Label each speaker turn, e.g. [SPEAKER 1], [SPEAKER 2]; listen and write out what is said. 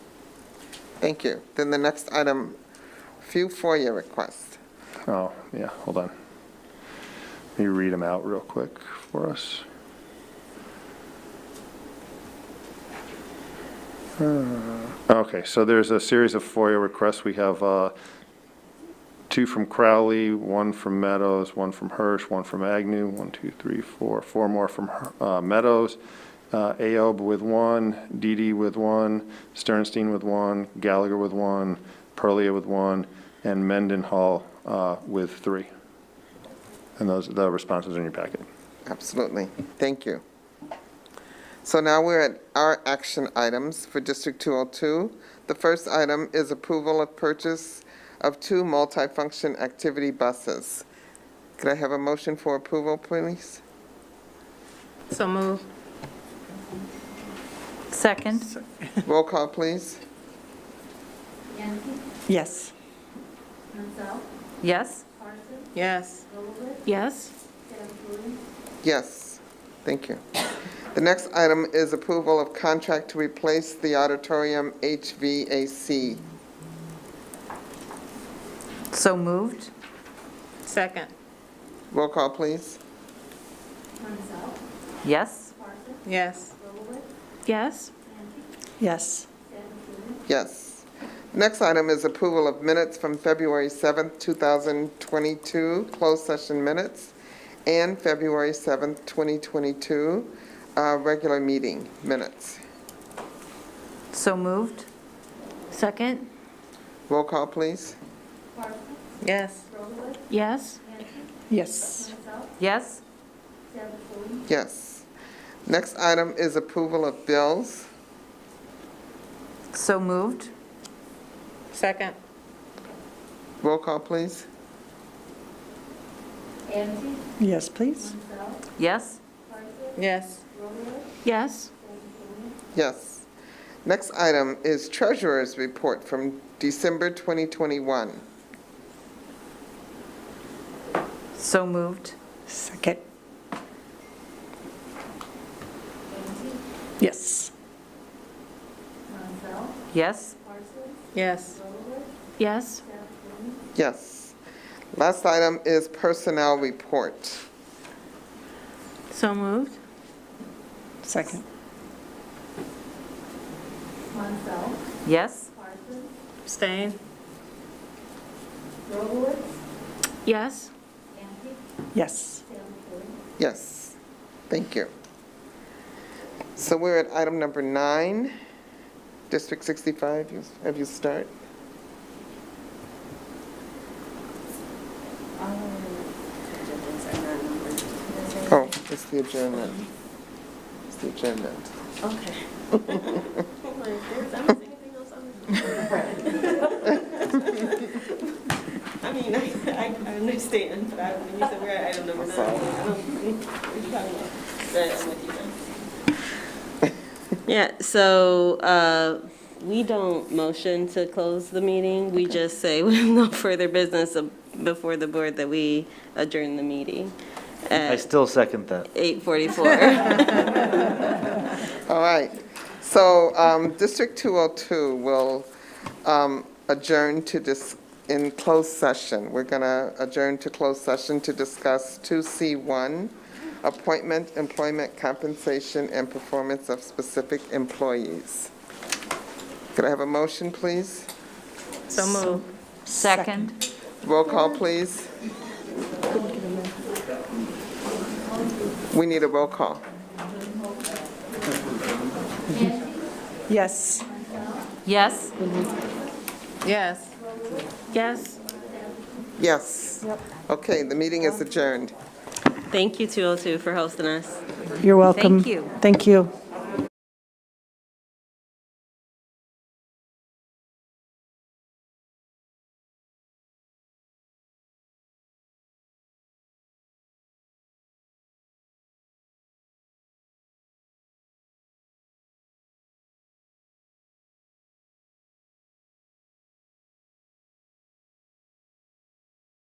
[SPEAKER 1] Thank you. Then the next item, few FOIA requests.
[SPEAKER 2] Oh, yeah, hold on. Let me read them out real quick for us. Uh, Okay, so there's a series of FOIA requests. We have uh, two from Crowley, one from Meadows, one from Hirsch, one from Agnew, one, two, three, four, four more from uh, Meadows, uh, Aob with one, Didi with one, Sternstein with one, Gallagher with one, Perlia with one, and Mendenhall uh, with three. And those, the responses are in your packet.
[SPEAKER 1] Absolutely. Thank you. So now we're at our action items for District 202. The first item is approval of purchase of two multifunction activity buses. Could I have a motion for approval, please?
[SPEAKER 3] So move. Second?
[SPEAKER 1] Roll call, please.
[SPEAKER 4] Yancey,
[SPEAKER 3] Yes.
[SPEAKER 4] Mansell,
[SPEAKER 3] Yes?
[SPEAKER 4] Parsons,
[SPEAKER 3] Yes.
[SPEAKER 4] Golowitz,
[SPEAKER 3] Yes?
[SPEAKER 4] Dennis,
[SPEAKER 1] Yes, thank you. The next item is approval of contract to replace the auditorium HVAC.
[SPEAKER 3] So moved? Second.
[SPEAKER 1] Roll call, please.
[SPEAKER 4] Mansell,
[SPEAKER 3] Yes?
[SPEAKER 4] Parsons,
[SPEAKER 3] Yes.
[SPEAKER 4] Golowitz,
[SPEAKER 3] Yes?
[SPEAKER 4] Yancey,
[SPEAKER 3] Yes.
[SPEAKER 4] Dennis,
[SPEAKER 1] Yes. Next item is approval of minutes from February 7th, 2022, closed session minutes, and February 7th, 2022, uh, regular meeting minutes.
[SPEAKER 3] So moved? Second?
[SPEAKER 1] Roll call, please.
[SPEAKER 4] Parsons,
[SPEAKER 3] Yes.
[SPEAKER 4] Golowitz,
[SPEAKER 3] Yes?
[SPEAKER 4] Yancey,
[SPEAKER 3] Yes.
[SPEAKER 4] Mansell,
[SPEAKER 3] Yes?
[SPEAKER 4] Dennis,
[SPEAKER 1] Yes. Next item is approval of bills.
[SPEAKER 3] So moved? Second.
[SPEAKER 1] Roll call, please.
[SPEAKER 4] Yancey,
[SPEAKER 3] Yes, please.
[SPEAKER 4] Mansell,
[SPEAKER 3] Yes?
[SPEAKER 4] Parsons,
[SPEAKER 3] Yes.
[SPEAKER 4] Golowitz,
[SPEAKER 3] Yes?
[SPEAKER 4] Dennis,
[SPEAKER 1] Yes. Next item is treasurer's report from December 2021.
[SPEAKER 3] So moved?
[SPEAKER 5] Second,
[SPEAKER 4] Yancey,
[SPEAKER 5] yes.
[SPEAKER 4] Mansell,
[SPEAKER 3] Yes?
[SPEAKER 4] Parsons,
[SPEAKER 3] Yes.
[SPEAKER 4] Golowitz,
[SPEAKER 3] Yes?
[SPEAKER 4] Dennis,
[SPEAKER 1] Yes. Last item is personnel report.
[SPEAKER 3] So moved?
[SPEAKER 5] Second,
[SPEAKER 4] Mansell,
[SPEAKER 3] Yes?
[SPEAKER 4] Parsons,
[SPEAKER 3] Stain?
[SPEAKER 4] Golowitz,
[SPEAKER 3] Yes?
[SPEAKER 4] Yancey,
[SPEAKER 5] yes.
[SPEAKER 4] Dennis,
[SPEAKER 1] Yes, thank you. So we're at item number nine, District 65, You- have you start? Oh, it's the adjournment. It's the adjournment.
[SPEAKER 6] Okay. I mean, I, I I understand, but I, when you said we're at item number nine, I'm like, I don't, what are you talking about? But I'm with you then. Yeah, so uh, we don't motion to close the meeting. We just say with no further business of- before the board that we adjourn the meeting
[SPEAKER 7] I
[SPEAKER 6] at
[SPEAKER 7] still second that.
[SPEAKER 6] 8:44.
[SPEAKER 1] All right, so um, District 202 will um, adjourn to this, in closed session. We're going to adjourn to closed session to discuss 2C1, appointment, employment compensation, and performance of specific employees. Could I have a motion, please?
[SPEAKER 3] So moved? Second?
[SPEAKER 1] Roll call, please. We need a roll call.
[SPEAKER 5] Yes.
[SPEAKER 3] Yes?
[SPEAKER 6] Mm-hmm.
[SPEAKER 3] Yes. Yes?
[SPEAKER 1] Yes. Okay, the meeting is adjourned.
[SPEAKER 6] Thank you, 202, for hosting us.
[SPEAKER 5] You're welcome.
[SPEAKER 3] Thank you.
[SPEAKER 5] Thank you.